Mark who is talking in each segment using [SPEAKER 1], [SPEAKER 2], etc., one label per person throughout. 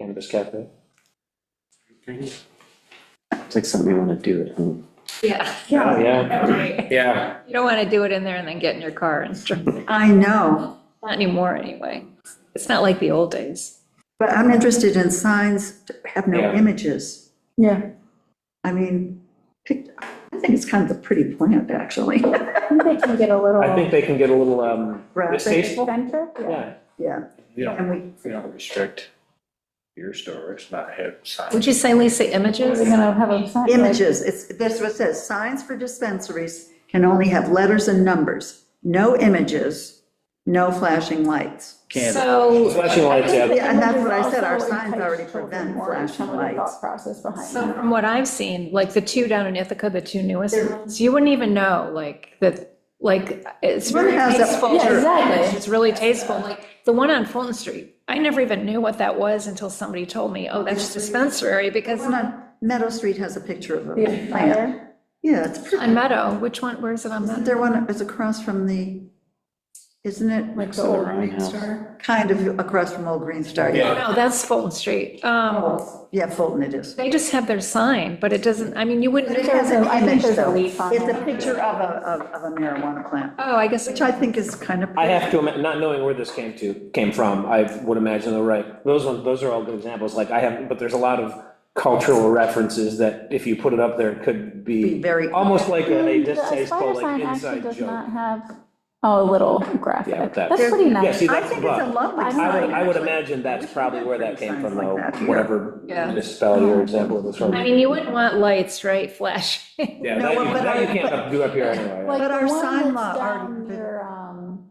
[SPEAKER 1] cannabis cafe.
[SPEAKER 2] It's like something you wanna do at home.
[SPEAKER 3] Yeah,
[SPEAKER 1] Oh,
[SPEAKER 4] Yeah,
[SPEAKER 1] yeah,
[SPEAKER 3] you
[SPEAKER 1] yeah.
[SPEAKER 3] don't want to do it in there and then get in your car and drive.
[SPEAKER 4] I know,
[SPEAKER 3] Not anymore, anyway. It's not like the old days.
[SPEAKER 4] but I'm interested in signs that have no
[SPEAKER 1] Yeah.
[SPEAKER 4] images.
[SPEAKER 5] Yeah,
[SPEAKER 4] I mean, pic- I think it's kind of a pretty plant, actually.
[SPEAKER 5] I think they can get a little.
[SPEAKER 1] I think they can get a little, um,
[SPEAKER 4] Graphic.
[SPEAKER 1] distasteful.
[SPEAKER 5] Center, yeah.
[SPEAKER 1] Yeah,
[SPEAKER 4] Yeah,
[SPEAKER 6] You don't,
[SPEAKER 4] and we,
[SPEAKER 6] you don't restrict beer stores, not have signs.
[SPEAKER 3] Would you say, Lisa,
[SPEAKER 5] We're
[SPEAKER 3] images?
[SPEAKER 5] gonna have a sign. like-
[SPEAKER 4] images, it's, that's what it says, signs for dispensaries can only have letters and numbers, no images, no flashing lights.
[SPEAKER 3] So,
[SPEAKER 1] flashing lights, yeah,
[SPEAKER 4] Yeah, and that's what I said, our
[SPEAKER 5] Images also
[SPEAKER 4] signs already
[SPEAKER 5] entice children
[SPEAKER 4] prevent
[SPEAKER 5] more into some of the
[SPEAKER 4] flashing lights.
[SPEAKER 5] Thought process behind
[SPEAKER 3] so
[SPEAKER 5] that.
[SPEAKER 3] from what I've seen, like the two down in Ithaca, the two newest ones, you wouldn't even know, like, that, like, it's
[SPEAKER 4] One
[SPEAKER 3] very
[SPEAKER 4] has that
[SPEAKER 3] tasteful.
[SPEAKER 5] Yeah, exactly.
[SPEAKER 3] It's really tasteful, like, the one on Fulton Street, I never even knew what that was until somebody told me, oh, that's a dispensary, because
[SPEAKER 4] One on Meadow Street has a picture of a
[SPEAKER 5] The
[SPEAKER 4] plant.
[SPEAKER 5] fire,
[SPEAKER 4] Yeah, it's pretty.
[SPEAKER 3] on Meadow, which one, where is it on Meadow?
[SPEAKER 4] Isn't there one, it's across from the, isn't it?
[SPEAKER 5] like the
[SPEAKER 2] So
[SPEAKER 5] old
[SPEAKER 2] their own
[SPEAKER 5] Green
[SPEAKER 2] house.
[SPEAKER 5] Star.
[SPEAKER 4] Kind of across from Old Green Star, yeah.
[SPEAKER 3] No, that's Fulton Street. Um,
[SPEAKER 4] Yeah, Fulton it is.
[SPEAKER 3] They just have their sign, but it doesn't, I mean, you wouldn't,
[SPEAKER 4] But it
[SPEAKER 5] There's
[SPEAKER 4] has an
[SPEAKER 5] a- I think
[SPEAKER 4] image,
[SPEAKER 5] there's a
[SPEAKER 4] though.
[SPEAKER 5] leaf on
[SPEAKER 4] It's a
[SPEAKER 5] it.
[SPEAKER 4] picture of a, of of a marijuana plant,
[SPEAKER 3] oh, I guess,
[SPEAKER 4] which I think is kind of.
[SPEAKER 1] I have to, ima- not knowing where this came to, came from, I would imagine they're right. Those ones, those are all good examples, like I have, but there's a lot of cultural references that if you put it up there, it could
[SPEAKER 4] Be
[SPEAKER 1] be
[SPEAKER 4] very-
[SPEAKER 1] almost like a a
[SPEAKER 5] The
[SPEAKER 1] distasteful,
[SPEAKER 5] fire
[SPEAKER 1] like
[SPEAKER 5] sign actually
[SPEAKER 1] inside
[SPEAKER 5] does
[SPEAKER 1] joke.
[SPEAKER 5] not have, oh, a little
[SPEAKER 1] Yeah,
[SPEAKER 5] graphic.
[SPEAKER 1] but that-
[SPEAKER 5] That's pretty
[SPEAKER 1] Yeah,
[SPEAKER 5] nice.
[SPEAKER 1] see,
[SPEAKER 4] I
[SPEAKER 1] that's,
[SPEAKER 4] think it's a
[SPEAKER 1] but,
[SPEAKER 4] lovely
[SPEAKER 5] I
[SPEAKER 4] sign.
[SPEAKER 5] don't-
[SPEAKER 1] I would, I would
[SPEAKER 4] actually.
[SPEAKER 1] imagine that's probably where that came from,
[SPEAKER 4] Signs
[SPEAKER 1] though,
[SPEAKER 4] like that here.
[SPEAKER 1] whatever
[SPEAKER 3] Yeah.
[SPEAKER 1] municipality or example it was from.
[SPEAKER 3] I mean, you wouldn't want lights, right, flashing?
[SPEAKER 1] Yeah,
[SPEAKER 4] No,
[SPEAKER 1] that you,
[SPEAKER 4] but
[SPEAKER 1] that you
[SPEAKER 4] I-
[SPEAKER 1] can't
[SPEAKER 4] but-
[SPEAKER 1] up- do up here anyway.
[SPEAKER 4] But
[SPEAKER 5] Like the
[SPEAKER 4] our
[SPEAKER 5] one
[SPEAKER 4] sign
[SPEAKER 5] that's
[SPEAKER 4] law already-
[SPEAKER 5] down near, um,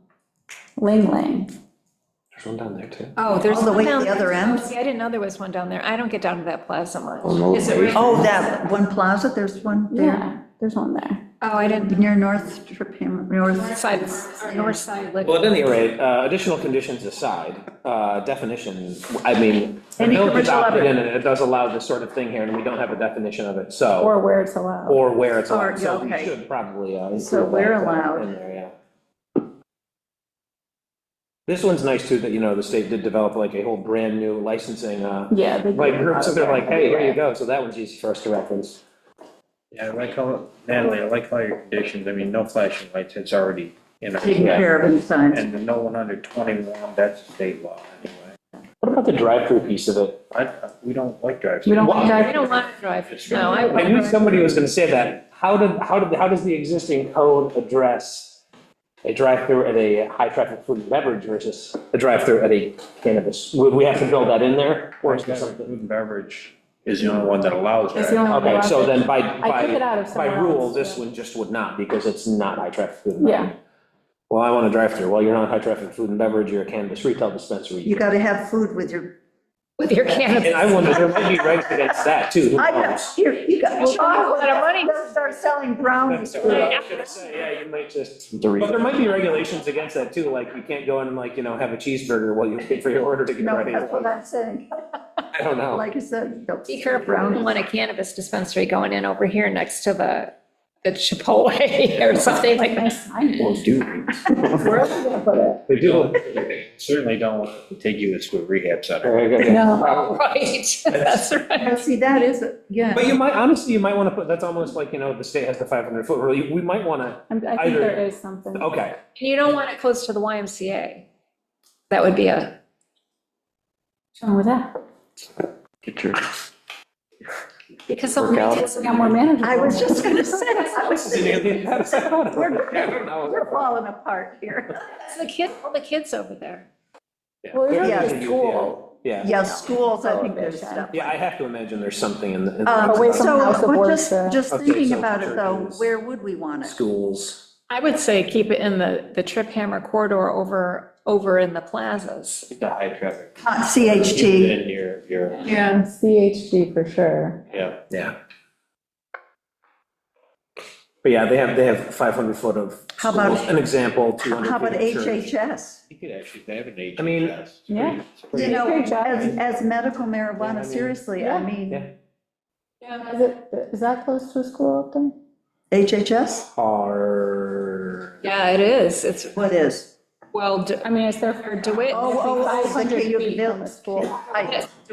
[SPEAKER 5] Ling Ling.
[SPEAKER 1] There's one down there too.
[SPEAKER 3] Oh, there's
[SPEAKER 4] All the way
[SPEAKER 3] one
[SPEAKER 4] to
[SPEAKER 3] down.
[SPEAKER 4] the other end?
[SPEAKER 3] See, I didn't know there was one down there. I don't get down to that plaza much.
[SPEAKER 2] Oh, no.
[SPEAKER 3] Is it really-
[SPEAKER 4] Oh, that one plaza, there's one there,
[SPEAKER 5] Yeah, there's one there.
[SPEAKER 3] Oh, I didn't,
[SPEAKER 4] near North Tripham,
[SPEAKER 3] north
[SPEAKER 4] North,
[SPEAKER 3] side, or north side. liquor.
[SPEAKER 1] Well, at any rate, uh, additional conditions aside, uh, definition, I mean, the
[SPEAKER 4] Any
[SPEAKER 1] village is
[SPEAKER 4] commercial
[SPEAKER 1] opted
[SPEAKER 4] other-
[SPEAKER 1] in, and it does allow this sort of thing here, and we don't have a definition of it, so,
[SPEAKER 5] Or where it's allowed.
[SPEAKER 1] or where it's
[SPEAKER 4] Or,
[SPEAKER 1] on, so we
[SPEAKER 4] okay.
[SPEAKER 1] should probably uh, include that.
[SPEAKER 4] So where
[SPEAKER 1] uh,
[SPEAKER 4] allowed.
[SPEAKER 1] in there, yeah. This one's nice too, that, you know, the state did develop like a whole brand-new licensing, uh,
[SPEAKER 5] Yeah. they do
[SPEAKER 1] like,
[SPEAKER 5] a lot
[SPEAKER 1] group, so
[SPEAKER 5] of
[SPEAKER 1] they're
[SPEAKER 5] that
[SPEAKER 1] like, hey, here you
[SPEAKER 5] everywhere.
[SPEAKER 1] go, so that one's easy for us to reference.
[SPEAKER 6] Yeah, I like all, Natalie, I like all your conditions. I mean, no flashing lights, it's already in our.
[SPEAKER 4] taking care of in signs.
[SPEAKER 6] And the no one under twenty-one, that's state law anyway.
[SPEAKER 1] What about the drive-through piece of it?
[SPEAKER 6] I, we don't like drive.
[SPEAKER 5] You don't
[SPEAKER 1] Why?
[SPEAKER 5] drive-
[SPEAKER 3] I don't want to drive, no, I
[SPEAKER 1] I
[SPEAKER 3] wouldn't
[SPEAKER 1] knew
[SPEAKER 3] drive.
[SPEAKER 1] somebody was gonna say that. How did, how did, how does the existing code address a drive-through at a high-traffic food and beverage versus a drive-through at a cannabis? Would we have to build that in there? Or is there something?
[SPEAKER 6] Food and beverage is the only one that allows
[SPEAKER 5] It's the
[SPEAKER 6] drive.
[SPEAKER 5] only one
[SPEAKER 1] Okay,
[SPEAKER 5] allowed
[SPEAKER 1] so
[SPEAKER 5] to-
[SPEAKER 1] then by,
[SPEAKER 5] I took it
[SPEAKER 1] by,
[SPEAKER 5] out of
[SPEAKER 1] by
[SPEAKER 5] somewhere
[SPEAKER 1] rule,
[SPEAKER 5] else,
[SPEAKER 1] this
[SPEAKER 5] yeah.
[SPEAKER 1] one just would not, because it's not high-traffic food and
[SPEAKER 5] Yeah.
[SPEAKER 1] beverage. Well, I want a drive-through. Well, you're not high-traffic food and beverage, you're a cannabis retail dispensary.
[SPEAKER 4] You got to have food with your,
[SPEAKER 3] with your cannabis.
[SPEAKER 1] And I wonder, there might be regs against that too. Who
[SPEAKER 4] I know,
[SPEAKER 1] knows?
[SPEAKER 4] here, you got.
[SPEAKER 3] Well, a lot of money.
[SPEAKER 4] They'll Start selling brownies.
[SPEAKER 1] That's
[SPEAKER 4] for
[SPEAKER 1] what
[SPEAKER 4] you.
[SPEAKER 1] I was gonna say, Yeah, you might just. But there
[SPEAKER 2] Doritos.
[SPEAKER 1] might be regulations against that too, like you can't go in and like, you know, have a cheeseburger while you wait for your order to get
[SPEAKER 4] No,
[SPEAKER 1] ready.
[SPEAKER 4] that's what I'm saying.
[SPEAKER 1] I don't know.
[SPEAKER 4] Like I said, they'll
[SPEAKER 3] Be careful, I don't want a cannabis dispensary going in over here next to the the Chipotle or something like that.
[SPEAKER 5] Nice signage.
[SPEAKER 2] Well, Doritos.
[SPEAKER 5] Where else are you gonna put it?
[SPEAKER 1] They do.
[SPEAKER 6] Certainly don't want to take you to a rehab center.
[SPEAKER 5] No.
[SPEAKER 3] Right, that's right.
[SPEAKER 4] Now, see, that is, yeah.
[SPEAKER 1] But you might, honestly, you might want to put, that's almost like, you know, the state has the 500 foot rule. You- We might want to,
[SPEAKER 5] I'm- I think
[SPEAKER 1] Either-
[SPEAKER 5] there is something.
[SPEAKER 1] okay.
[SPEAKER 3] And you don't want it close to the YMCA. That would be a,
[SPEAKER 5] What's wrong with that?
[SPEAKER 2] Get your,
[SPEAKER 3] because
[SPEAKER 2] Work out.
[SPEAKER 3] somebody,
[SPEAKER 5] We got more managers.
[SPEAKER 4] I was just going to say, I was thinking,
[SPEAKER 1] We're
[SPEAKER 4] we're falling apart here.
[SPEAKER 3] the kid, all the kids over there.
[SPEAKER 5] Well, we
[SPEAKER 4] Yeah.
[SPEAKER 5] have a school.
[SPEAKER 1] Yeah,
[SPEAKER 4] Yeah, schools, I think there's
[SPEAKER 5] Prohibition.
[SPEAKER 4] stuff.
[SPEAKER 1] yeah, I have to imagine there's something in the. in
[SPEAKER 4] Um,
[SPEAKER 1] the-
[SPEAKER 5] Away from House
[SPEAKER 4] So,
[SPEAKER 5] of
[SPEAKER 4] but just,
[SPEAKER 5] Worship.
[SPEAKER 4] just
[SPEAKER 1] Okay,
[SPEAKER 4] thinking
[SPEAKER 1] so
[SPEAKER 4] about it though,
[SPEAKER 1] churches.
[SPEAKER 4] where would we want it?
[SPEAKER 1] Schools.
[SPEAKER 3] I would say keep it in the, the trip hammer corridor over, over in the plazas.
[SPEAKER 6] The high traffic.
[SPEAKER 4] Not CHG.
[SPEAKER 6] In your, your,
[SPEAKER 5] Yeah, CHG for sure.
[SPEAKER 6] yeah.
[SPEAKER 1] Yeah. But yeah, they have, they have 500 foot of.
[SPEAKER 4] How about-
[SPEAKER 1] schools, An example, 200 feet
[SPEAKER 4] How about
[SPEAKER 1] of church.
[SPEAKER 4] HHS?
[SPEAKER 6] You could actually, they have an agent.
[SPEAKER 1] I mean-
[SPEAKER 5] Yeah.
[SPEAKER 4] You know,
[SPEAKER 5] Great job.
[SPEAKER 4] as, as medical
[SPEAKER 1] Yeah, I
[SPEAKER 4] marijuana,
[SPEAKER 1] mean-
[SPEAKER 4] seriously,
[SPEAKER 5] Yeah.
[SPEAKER 4] I
[SPEAKER 1] Yeah.
[SPEAKER 4] mean,
[SPEAKER 5] Is it, is that close to a school up there?
[SPEAKER 4] HHS,
[SPEAKER 1] Are.
[SPEAKER 3] Yeah, it is. It's,
[SPEAKER 4] what is?
[SPEAKER 3] well, d-
[SPEAKER 5] I mean, it's there for
[SPEAKER 3] DeWitt.
[SPEAKER 4] Oh, oh, oh, it's like
[SPEAKER 5] 500
[SPEAKER 4] you can
[SPEAKER 5] feet from
[SPEAKER 4] build.
[SPEAKER 5] a school.
[SPEAKER 4] I-